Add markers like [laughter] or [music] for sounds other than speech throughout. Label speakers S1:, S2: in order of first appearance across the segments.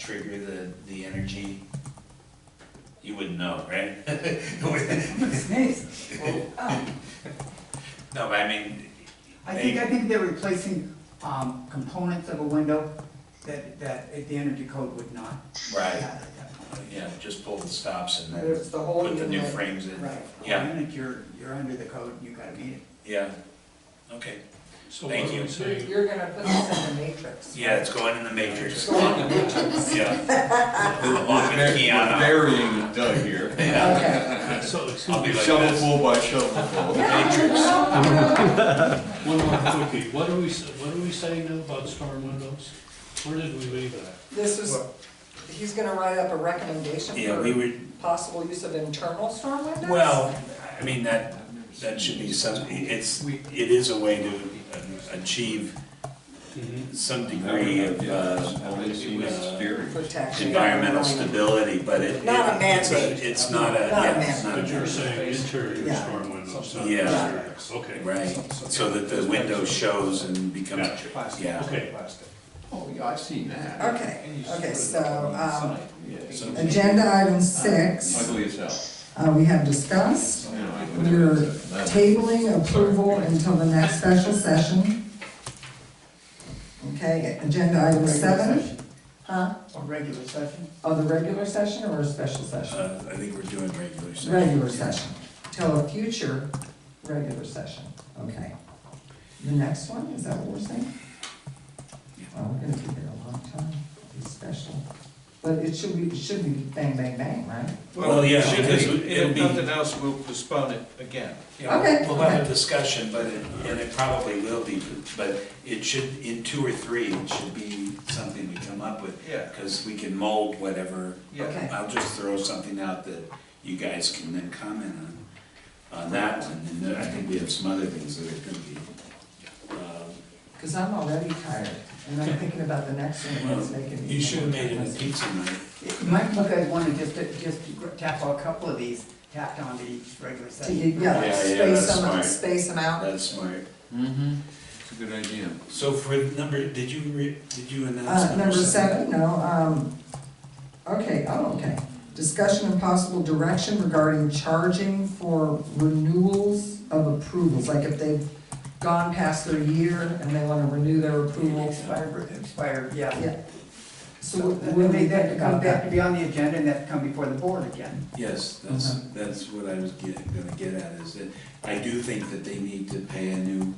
S1: trigger the, the energy? You wouldn't know, right? [laughs] No,
S2: Sneeze. Oh.
S1: but I mean.
S2: I think, I think they're replacing, um, components of a window that, that the energy code would not.
S1: Right,
S2: have at that point.
S1: yeah, just pull the stops and then
S2: There's the whole
S1: put the new
S2: unit.
S1: frames in.
S2: Right.
S1: Yeah.
S2: The minute you're, you're under the code, you gotta meet it.
S1: Yeah, okay.
S3: So
S1: Thank
S3: what are
S1: you.
S3: we
S4: You're,
S3: saying?
S4: you're gonna put this in the matrix.
S1: Yeah, it's going in the matrix.
S4: Go on the matrix.
S1: Yeah. Off with
S5: We're
S1: Keanu.
S5: Burying
S1: [laughs]
S5: Doug here.
S4: Okay.
S3: Uh, So, excuse
S1: I'll
S3: me,
S1: be like this.
S5: Shovelful by shovelful.
S1: Matrix.
S3: one more quickie, what are we, s- what are we saying now about storm windows? Where did we leave that?
S4: This is, he's gonna write up a recommendation
S1: Yeah, we
S4: for
S1: were,
S4: possible use of internal storm windows?
S1: well, I mean, that, that should be some, it's, it is a way to uh, achieve some degree of, uh,
S4: Protection.
S1: environmental stability, but it,
S4: Not a
S1: it- it's a,
S4: mandate.
S1: it's not a,
S4: Not a
S1: yeah, it's not a
S3: But you're
S1: mandate.
S3: saying interior
S4: Yeah.
S3: storm windows, not
S1: Yeah.
S3: exterior, okay.
S1: Right, so that the window shows and becomes,
S3: Gotcha.
S1: yeah.
S3: Okay.
S5: Oh, yeah, I've seen that.
S4: Okay, okay, so, um,
S1: So-
S4: agenda item
S5: I
S4: six,
S5: believe it's out.
S4: uh, we have discussed.
S5: You know, I believe
S4: We're
S5: it's out.
S4: tabling approval until the next special session. Okay, agenda item
S2: Regular
S4: seven,
S2: session.
S4: huh?
S2: A regular session?
S4: Oh, the regular session or a special session?
S1: Uh, I think we're doing regular session.
S4: Regular session, till a future regular session, okay. The next one, is that what we're saying? Well, we're gonna keep it a long time, it's special, but it should be, it should be bang, bang, bang, right?
S1: Well, yeah,
S6: should
S1: because
S6: we-
S1: it'll
S6: If
S1: be-
S6: nothing else, we'll postpone it again.
S1: Yeah,
S4: Okay,
S1: We'll have a
S4: okay.
S1: discussion, but it, and it probably will be, but it should, in two or three, it should be something we come up with.
S6: Yeah.
S1: Because we can mold whatever,
S6: Yeah.
S4: Okay.
S1: I'll just throw something out that you guys can then comment on, on that one. And then I think we have some other things that are gonna be, uh,
S4: Cause I'm already tired, and I'm thinking about the next one, and it's making
S1: well,
S4: me.
S1: you should have made it a pizza night.
S2: You might look at one and just, just tap a couple of these, tapped onto each regular
S4: To,
S2: session.
S1: Yeah,
S4: yeah,
S1: yeah,
S4: space
S1: that's
S4: them,
S1: smart.
S4: space them out.
S1: That's smart.
S5: Mm-hmm, it's a good idea.
S1: So for number, did you re, did you announce
S4: Uh,
S1: number
S4: number
S1: seven?
S4: seven, no, um, okay, oh, okay. Discussion and possible direction regarding charging for renewals of approvals, like if they've gone past their year and they wanna renew their approval.
S2: Expired, expired, yeah.
S4: Yeah. So
S2: So,
S4: what
S2: that-
S4: what do we
S2: that
S4: think
S2: comes
S4: about
S2: back to
S4: that?
S2: be on the agenda and that come before the board again.
S1: Yes, that's, that's what I was getting, gonna get at, is that I do think that they need to pay a new,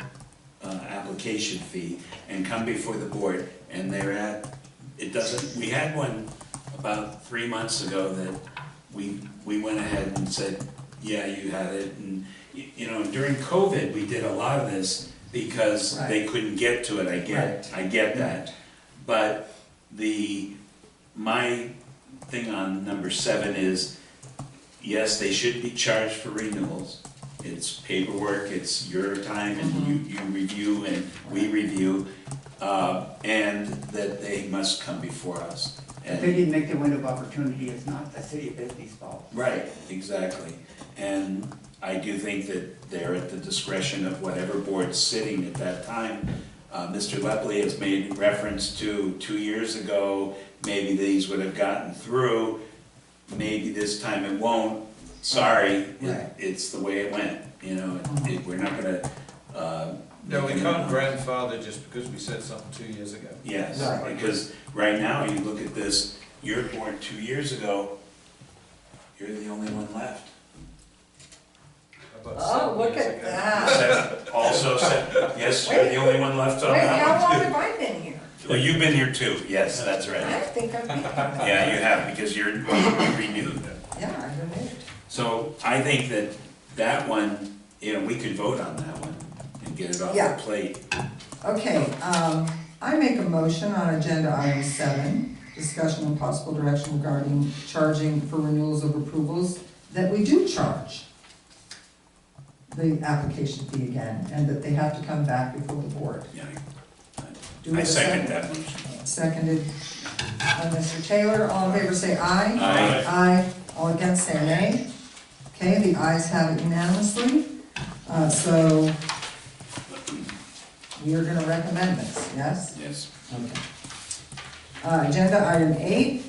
S1: uh, application fee and come before the board, and they're at, it doesn't, we had one about three months ago that we, we went ahead and said, yeah, you had it, and, y- you know, during COVID, we did a lot of this because they couldn't get to it, I get, I get that. But the, my thing on number seven is, yes, they should be charged for renewals. It's paperwork, it's your time, and you, you review and we review, uh, and that they must come before us.
S2: If
S1: And-
S2: they didn't make the window of opportunity, it's not the city of Bisbee's fault.
S1: Right, exactly. And I do think that they're at the discretion of whatever board's sitting at that time. Uh, Mr. Lepley has made reference to, two years ago, maybe these would have gotten through, maybe this time it won't. Sorry,
S4: Right.
S1: it- it's the way it went, you know, it- it- we're not gonna, uh.
S6: No, we
S1: make an-
S6: can't grandfather just because we said something two years ago.
S1: Yes,
S4: Right.
S1: because right now, you look at this, you're born two years ago, you're the only one left.
S6: About
S4: Oh,
S6: seven
S4: look
S6: years
S4: at
S6: ago.
S4: that.
S1: said- also said, yes, you're the only one left on
S4: Wait, how
S1: that
S4: long
S1: one.
S4: have I been here?
S1: Well, you've been here too, yes, that's
S4: I
S1: right.
S4: think I've been, yeah,
S1: Yeah, you have, because you're you renewed.
S4: I renewed.
S1: So I think that that one, you know, we could vote on that one and get it off
S4: Yeah.
S1: the plate.
S4: Okay, um, I make a motion on agenda item seven, discussion and possible direction regarding charging for renewals of approvals, that we do charge the application fee again, and that they have to come back before the board.
S1: Yeah,
S4: Do we
S1: I
S4: have a
S1: second that motion.
S4: Seconded by Mr. Taylor, all in favor say aye.
S1: Aye.
S4: Aye, all against say nay. Okay, the ayes have it unanimously, uh, so we are gonna recommend this, yes?
S1: Yes.
S4: Okay. Uh, Agenda item eight,